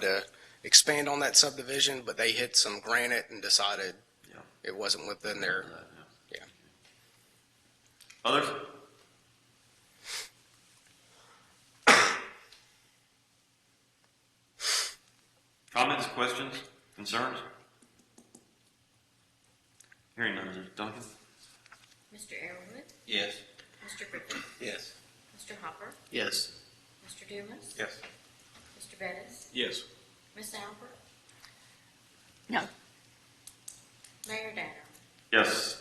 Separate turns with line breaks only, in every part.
to expand on that subdivision, but they hit some granite and decided
Yeah.
it wasn't within their, Yeah.
Others? Comments, questions, concerns? Hearing none, Duncan?
Mr. Arrowood,
Yes.
Mr. Griffin,
Yes.
Mr. Hopper,
Yes.
Mr. Dumas,
Yes.
Mr. Bettis,
Yes.
Ms. Albert,
No.
Mayor Danner.
Yes.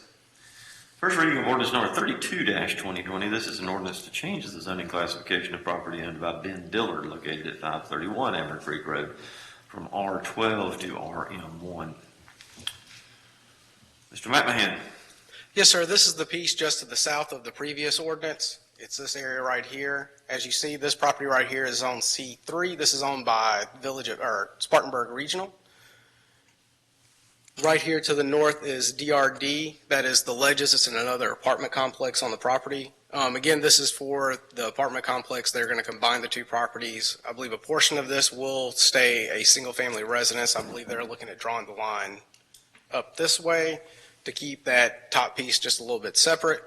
First reading of ordinance number thirty-two twenty twenty. This is an ordinance to change the zoning classification of property owned by Ben Dillard located at five thirty-one Amber Creek Road from R twelve to RM one. Mr. McMahon?
Yes, sir. This is the piece just to the south of the previous ordinance. It's this area right here. As you see, this property right here is on C3. This is owned by Village of, or Spartanburg Regional. Right here to the north is DRD. That is the Ledges. It's in another apartment complex on the property. Um, Again, this is for the apartment complex. They're going to combine the two properties. I believe a portion of this will stay a single-family residence. I believe they're looking at drawing the line up this way to keep that top piece just a little bit separate,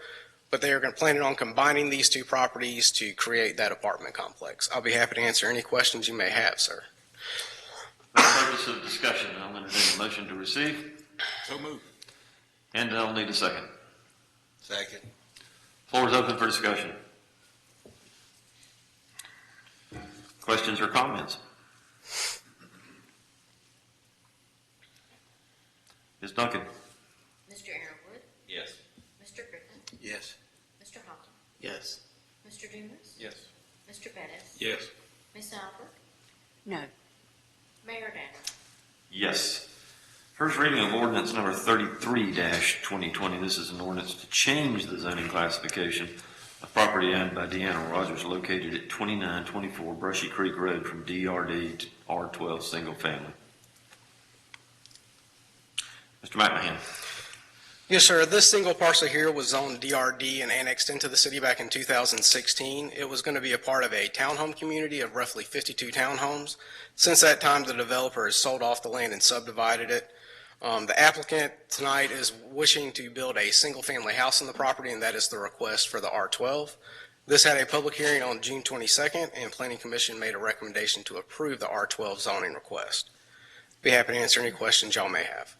but they are going to plan on combining these two properties to create that apartment complex. I'll be happy to answer any questions you may have, sir.
For the purpose of discussion, I'll entertain a motion to receive,
So moved.
and I'll need a second.
Second.
Floor is open for discussion. Questions or comments? Ms. Duncan?
Mr. Arrowood,
Yes.
Mr. Griffin,
Yes.
Mr. Hopper,
Yes.
Mr. Dumas,
Yes.
Mr. Bettis,
Yes.
Ms. Albert,
No.
Mayor Danner.
Yes. First reading of ordinance number thirty-three twenty twenty. This is an ordinance to change the zoning classification of property owned by Deanna Rogers located at twenty-nine twenty-four Brushy Creek Road from DRD to R twelve single family. Mr. McMahon?
Yes, sir. This single parcel here was zoned DRD and annexed into the city back in 2016. It was going to be a part of a townhome community of roughly 52 townhomes. Since that time, the developer has sold off the land and subdivided it. Um, The applicant tonight is wishing to build a single-family house on the property, and that is the request for the R12. This had a public hearing on June 22nd, and Planning Commission made a recommendation to approve the R12 zoning request. Be happy to answer any questions y'all may have.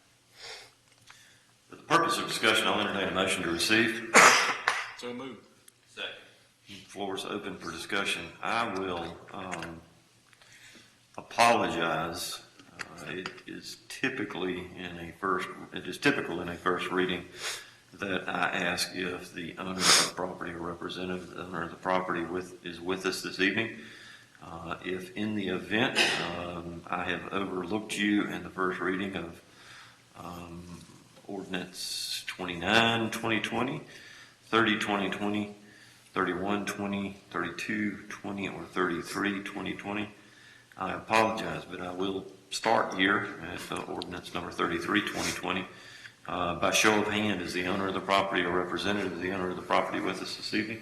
For the purpose of discussion, I'll entertain a motion to receive.
So moved. Second.
Floor is open for discussion. I will um, apologize. Uh, It is typically in a first, it is typical in a first reading that I ask if the owner of the property or representative, of the owner of the property with, is with us this evening. Uh, If in the event um, I have overlooked you in the first reading of um, ordinance 29, 2020, 30, 2020, 31, 20, 32, 20, or 33, 2020. I apologize, but I will start here at uh, ordinance number 33, 2020. Uh, By show of hand, is the owner of the property or representative of the owner of the property with us this evening?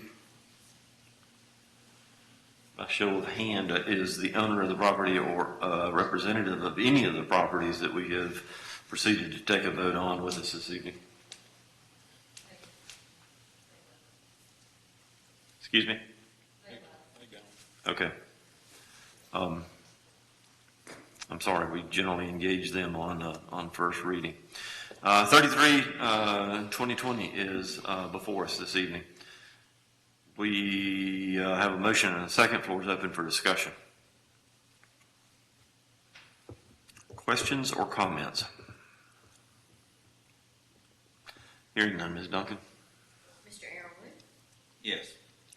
By show of hand, uh, is the owner of the property or uh, representative of any of the properties that we have proceeded to take a vote on with us this evening? Excuse me? Okay. Um, I'm sorry, we generally engage them on, uh, on first reading. Uh, 33, uh, 2020 is uh, before us this evening. We uh, have a motion and a second. Floor is open for discussion. Questions or comments? Hearing none, Ms. Duncan?
Mr. Arrowood,
Yes.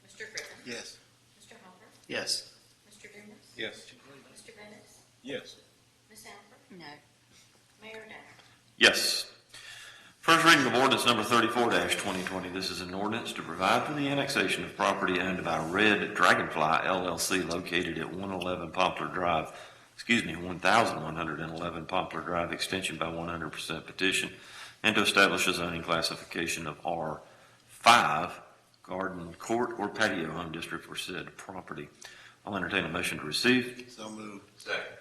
Mr. Griffin,
Yes.
Mr. Hopper,
Yes.
Mr. Dumas,
Yes.
Mr. Bettis,
Yes.
Ms. Albert,
No.
Mayor Danner.
Yes. First reading of ordinance number thirty-four twenty twenty. This is an ordinance to provide for the annexation of property owned by Red Dragonfly LLC located at one eleven Poplar Drive, excuse me, one thousand one hundred and eleven Poplar Drive, extension by one hundred percent petition, and to establish a zoning classification of R five, garden, court, or patio home district for said property. I'll entertain a motion to receive.
So moved. Second.